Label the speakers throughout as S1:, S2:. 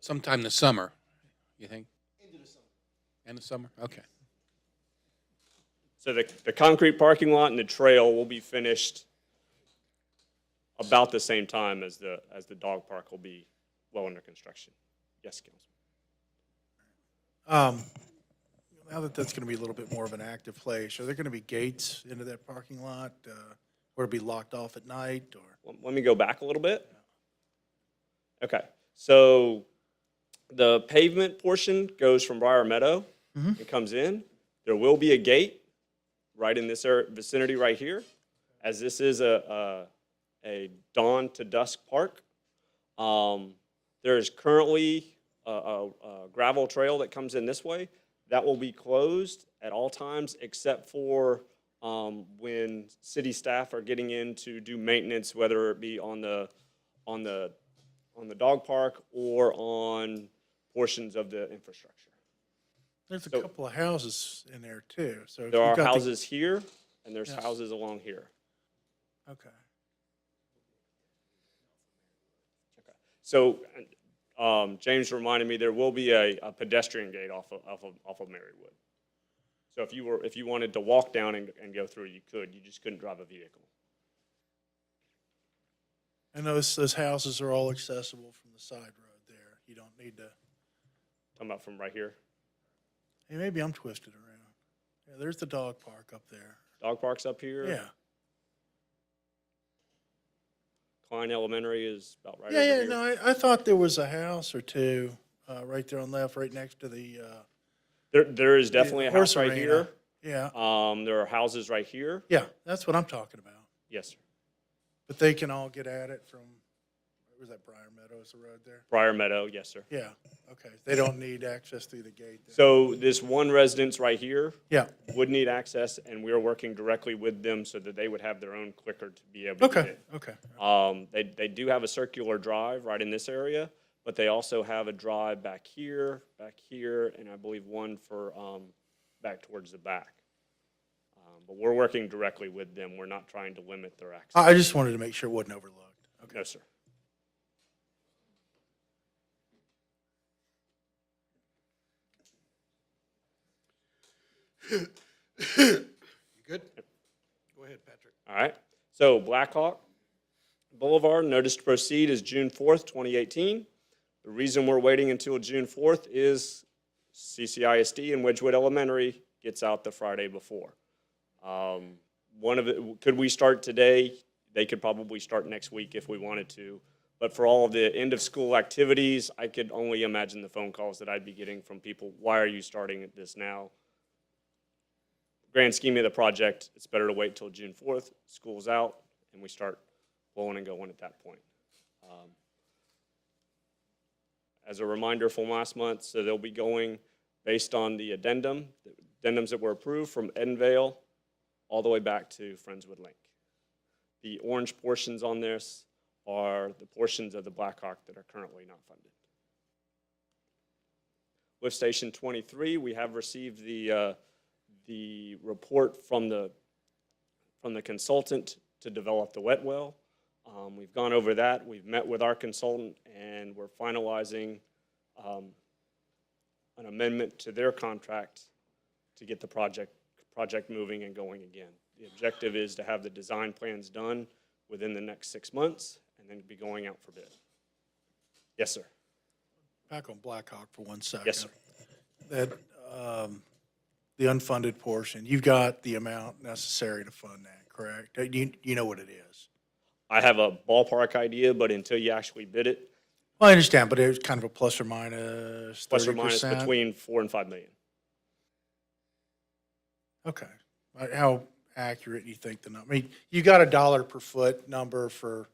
S1: Sometime this summer, you think? End of the summer. End of summer, okay.
S2: So the, the concrete parking lot and the trail will be finished about the same time as the, as the dog park will be well under construction. Yes, Councilman.
S3: Um, Now that that's going to be a little bit more of an active place, are there going to be gates into that parking lot? uh, Or be locked off at night or?
S2: Let- Let me go back a little bit. Okay, so the pavement portion goes from Briar Meadow and comes in. There will be a gate right in this ar- vicinity right here, as this is a, a, a dawn to dusk park. Um, there is currently a, a, a gravel trail that comes in this way. That will be closed at all times except for, um, when city staff are getting in to do maintenance, whether it be on the, on the, on the dog park or on portions of the infrastructure.
S3: There's a
S2: So-
S3: couple of houses in there too, so. if
S2: There
S3: you
S2: are
S3: got the-
S2: houses here and there's
S3: Yes.
S2: houses along here.
S3: Okay.
S2: So, um, James reminded me, there will be a, a pedestrian gate off of, off of, off of Marywood. So if you were, if you wanted to walk down and, and go through, you could, you just couldn't drive a vehicle.
S3: And those, those houses are all accessible from the side road there. You don't need to,
S2: Talking about from right here,
S3: hey, maybe I'm twisted around. Yeah, there's the dog park up there.
S2: dog park's up here.
S3: Yeah.
S2: Klein Elementary is about right over
S3: Yeah, yeah,
S2: here.
S3: no, I, I thought there was a house or two, uh, right there on left, right next to the, uh.
S2: There, there is definitely a
S3: horse
S2: house right
S3: arena.
S2: here.
S3: Yeah,
S2: Um, there are houses right here.
S3: yeah, that's what I'm talking about.
S2: Yes, sir.
S3: But they can all get at it from, where was that Briar Meadows, the road there?
S2: Briar Meadow, yes, sir.
S3: Yeah, okay, they don't need access through the gate there.
S2: So this one residence right here
S3: Yeah,
S2: would need access, and we are working directly with them so that they would have their own clicker to be able to get
S3: okay,
S2: it.
S3: okay,
S2: Um, they, they do have a circular drive right in this area, but they also have a drive back here, back here, and I believe one for, um, back towards the back. Um, But we're working directly with them. We're not trying to limit their access.
S3: I, I just wanted to make sure it wasn't overlooked.
S2: No, sir.
S4: Good? Go ahead, Patrick.
S2: All right. So Blackhawk Boulevard, notice to proceed is June fourth, twenty eighteen. The reason we're waiting until June fourth is CCISD and Wedgewood Elementary gets out the Friday before. Um, one of it, could we start today? They could probably start next week if we wanted to. But for all of the end of school activities, I could only imagine the phone calls that I'd be getting from people. Why are you starting this now? grand scheme of the project, it's better to wait till June fourth, school's out, and we start blowing and going at that point. Um, As a reminder from last month, so they'll be going based on the addendum, the addendums that were approved from Edenvale all the way back to Friendswood Link. The orange portions on this are the portions of the Blackhawk that are currently not funded. Lift Station 23, we have received the, uh, the report from the, from the consultant to develop the wet well. Um, We've gone over that, we've met with our consultant, and we're finalizing um, an amendment to their contract to get the project, project moving and going again. The objective is to have the design plans done within the next six months, and then be going out for bid. Yes, sir.
S3: Back on Blackhawk for one second.
S2: Yes, sir.
S3: That, um, the unfunded portion, you've got the amount necessary to fund that, correct? Uh, You, you know what it is.
S2: I have a ballpark idea, but until you actually bid it,
S3: Well, I understand, but it was kind of a plus or minus
S2: plus or
S3: thirty
S2: minus
S3: percent.
S2: between four and five million.
S3: Okay. Uh, How accurate do you think the number, I mean, you got a dollar per foot number for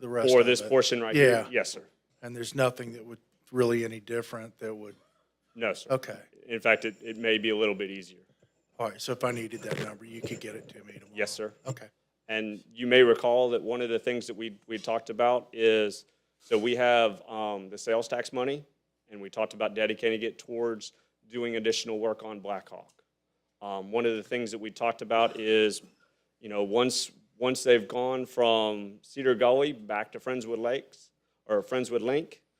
S3: the rest
S2: For
S3: of
S2: this
S3: it,
S2: portion right here?
S3: Yeah.
S2: Yes, sir.
S3: And there's nothing that would, really any different that would,
S2: No, sir.
S3: okay.
S2: In fact, it, it may be a little bit easier.
S3: All right, so if I needed that number, you could get it to me tomorrow?
S2: Yes, sir.
S3: Okay.
S2: And you may recall that one of the things that we, we talked about is, so we have um, the sales tax money, and we talked about dedicating it towards doing additional work on Blackhawk. Um, One of the things that we talked about is, you know, once, once they've gone from Cedar Gully back to Friendswood Lakes, or Friendswood Link,